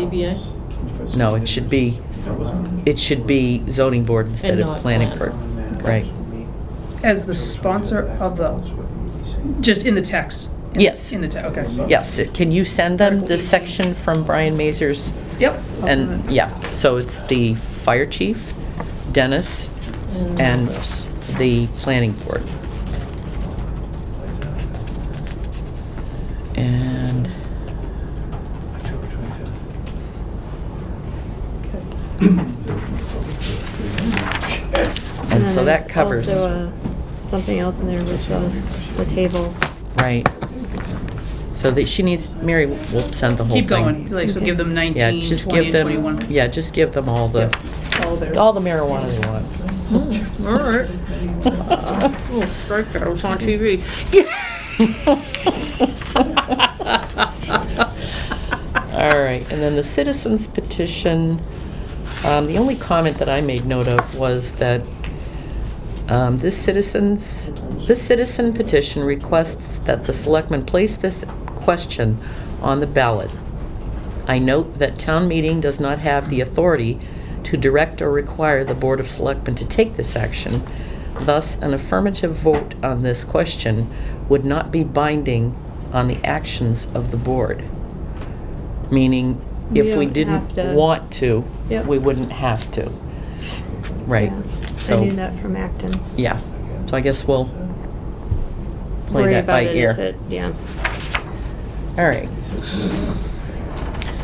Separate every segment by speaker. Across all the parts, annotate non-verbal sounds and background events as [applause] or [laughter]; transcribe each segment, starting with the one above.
Speaker 1: ZBA?
Speaker 2: No, it should be, it should be zoning board instead
Speaker 1: And
Speaker 2: of
Speaker 1: not
Speaker 2: planning board.
Speaker 1: plan.
Speaker 2: Right.
Speaker 3: As the sponsor of the, just in the text? In-
Speaker 2: Yes.
Speaker 3: In the text, okay.
Speaker 2: Yes, it- can you send them the section from Brian Mazur's?
Speaker 3: Yep. I'll send
Speaker 2: And,
Speaker 3: it.
Speaker 2: yeah, so it's the fire chief, Dennis, and the planning board. And And so
Speaker 4: there's
Speaker 2: that covers-
Speaker 4: Also, uh, something else in there which was the table.
Speaker 2: Right. So that she needs, Mary will send the whole thing.
Speaker 3: Keep going, like, so give them
Speaker 2: Yeah,
Speaker 3: 19,
Speaker 2: just
Speaker 3: 20,
Speaker 2: give
Speaker 3: and
Speaker 2: them,
Speaker 3: 21.
Speaker 2: yeah, just give them all the,
Speaker 3: All theirs.
Speaker 2: all the marijuana they want.
Speaker 1: All right. [laughs] Oh, strike that, it was on TV.
Speaker 2: All right, and then the citizens petition, um, the only comment that I made note of was that um, this citizens, this citizen petition requests that the selectmen place this question on the ballot. I note that town meeting does not have the authority to direct or require the Board of Selectmen to take this action. Thus, an affirmative vote on this question would not be binding on the actions of the board. Meaning, if we
Speaker 4: We don't have
Speaker 2: didn't
Speaker 4: to-
Speaker 2: want to,
Speaker 4: Yep.
Speaker 2: we wouldn't have to. Right,
Speaker 4: Yeah. I
Speaker 2: so,
Speaker 4: knew that from Acton.
Speaker 2: yeah. So I guess we'll play
Speaker 4: Worry
Speaker 2: that by
Speaker 4: about it if
Speaker 2: ear.
Speaker 4: it, yeah.
Speaker 2: All right.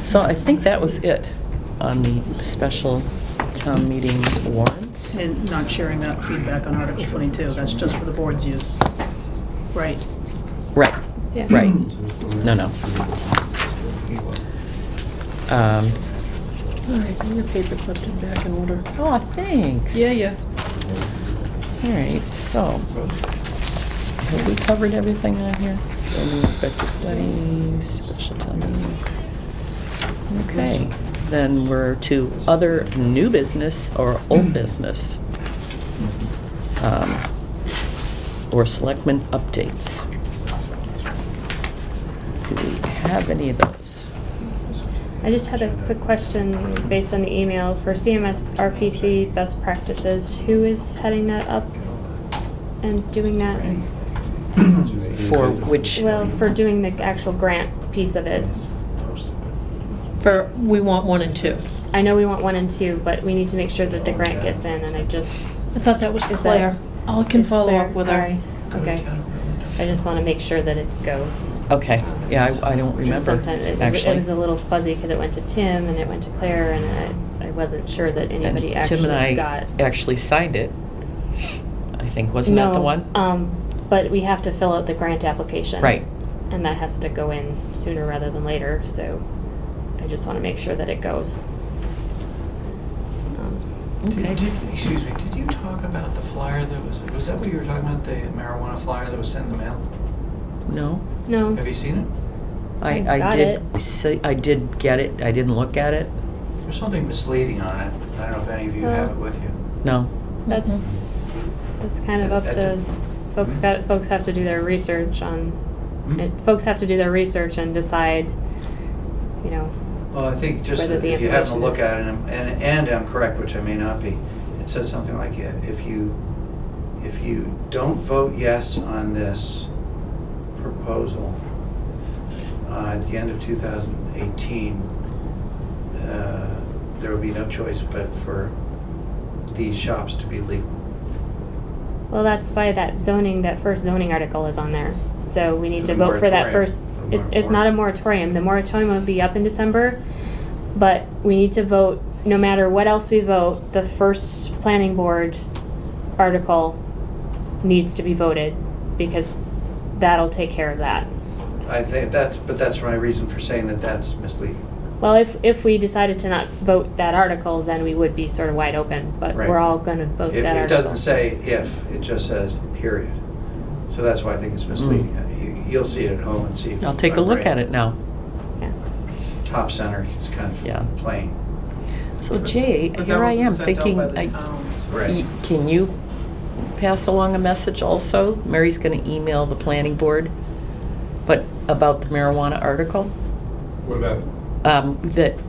Speaker 2: So I think that was it on the special town meeting warrant.
Speaker 3: And not sharing that feedback on Article 22, that's just for the board's use. Right.
Speaker 2: Right,
Speaker 4: Yeah.
Speaker 2: right. No, no. Um,
Speaker 1: All right, bring your paper clipped and back in order.
Speaker 2: Oh, thanks.
Speaker 1: Yeah, yeah.
Speaker 2: All right, so, have we covered everything on here? Building inspector studies, special town meeting. Okay, then we're to other new business or old business. Um, Or selectmen updates. Do we have any of those?
Speaker 4: I just had a quick question based on the email for CMS RPC best practices. Who is heading that up and doing that?
Speaker 2: For which,
Speaker 4: Well, for doing the actual grant piece of it.
Speaker 1: For, we want one and two.
Speaker 4: I know we want one and two, but we need to make sure that the grant gets in and I just.
Speaker 1: I thought that was
Speaker 4: Is that-
Speaker 1: Claire. I can
Speaker 4: It's
Speaker 1: follow
Speaker 4: Claire,
Speaker 1: up with uh, her.
Speaker 4: sorry. Okay. I just want to make sure that it goes.
Speaker 2: okay, yeah, I I don't remember,
Speaker 4: Sometimes it-
Speaker 2: actually.
Speaker 4: It was a little fuzzy because it went to Tim and it went to Claire and I, I wasn't sure that
Speaker 2: And
Speaker 4: anybody
Speaker 2: Tim and
Speaker 4: actually
Speaker 2: I
Speaker 4: got.
Speaker 2: actually signed it. I think, wasn't that the
Speaker 4: No,
Speaker 2: one?
Speaker 4: Um, but we have to fill out the grant application.
Speaker 2: Right,
Speaker 4: And that has to go in sooner rather than later, so I just want to make sure that it goes. Um,
Speaker 2: okay.
Speaker 5: Did- did- Excuse me, did you talk about the flyer that was, was that what you were talking about, the marijuana flyer that was sent in the mail?
Speaker 2: No,
Speaker 4: No.
Speaker 5: Have you seen it?
Speaker 2: I,
Speaker 4: I
Speaker 2: I
Speaker 4: got
Speaker 2: did, see- I did get it, I didn't look at it,
Speaker 5: There's something misleading on it. I don't know if any of you have it with you.
Speaker 2: no.
Speaker 4: That's, that's kind of up to, folks got,
Speaker 5: Mm-hmm.
Speaker 4: folks have to do their research on, it-
Speaker 5: Hmm?
Speaker 4: folks have to do their research and decide, you know,
Speaker 5: Well, I think just
Speaker 4: Whether the
Speaker 5: if you happen to
Speaker 4: information
Speaker 5: look
Speaker 4: is-
Speaker 5: at it, and, and and I'm correct, which I may not be, it says something like, yeah, if you, if you don't vote yes on this proposal uh, at the end of 2018, uh, there will be no choice but for these shops to be legal.
Speaker 4: well, that's why that zoning, that first zoning article is on there. So we need
Speaker 5: For
Speaker 4: to
Speaker 5: the
Speaker 4: vote for that
Speaker 5: moratorium.
Speaker 4: first,
Speaker 5: For the
Speaker 4: it's, it's not a moratorium, the moratorium will be up in December, but we need to vote, no matter what else we vote, the first planning board article needs to be voted, because that'll take care of that.
Speaker 5: I think that's, but that's my reason for saying that that's misleading.
Speaker 4: Well, if, if we decided to not vote that article, then we would be sort of wide open, but we're
Speaker 5: Right.
Speaker 4: all gonna vote
Speaker 5: It-
Speaker 4: that
Speaker 5: It
Speaker 4: article.
Speaker 5: doesn't say if, it just says period. So that's why I think it's misleading. You- You'll see it at home and see.
Speaker 2: Hmm. I'll take a look at it now.
Speaker 4: Yeah.
Speaker 5: It's Top center, it's kind
Speaker 2: Yeah.
Speaker 5: of plain.
Speaker 2: So Jay,
Speaker 6: But that
Speaker 2: here I
Speaker 6: wasn't
Speaker 2: am
Speaker 6: sent out
Speaker 2: thinking,
Speaker 6: by the
Speaker 2: I-
Speaker 3: Um,
Speaker 6: towns.
Speaker 2: y- can you pass along a message also? Mary's gonna email the planning board, but about the marijuana article?
Speaker 7: What about it?
Speaker 2: Um, that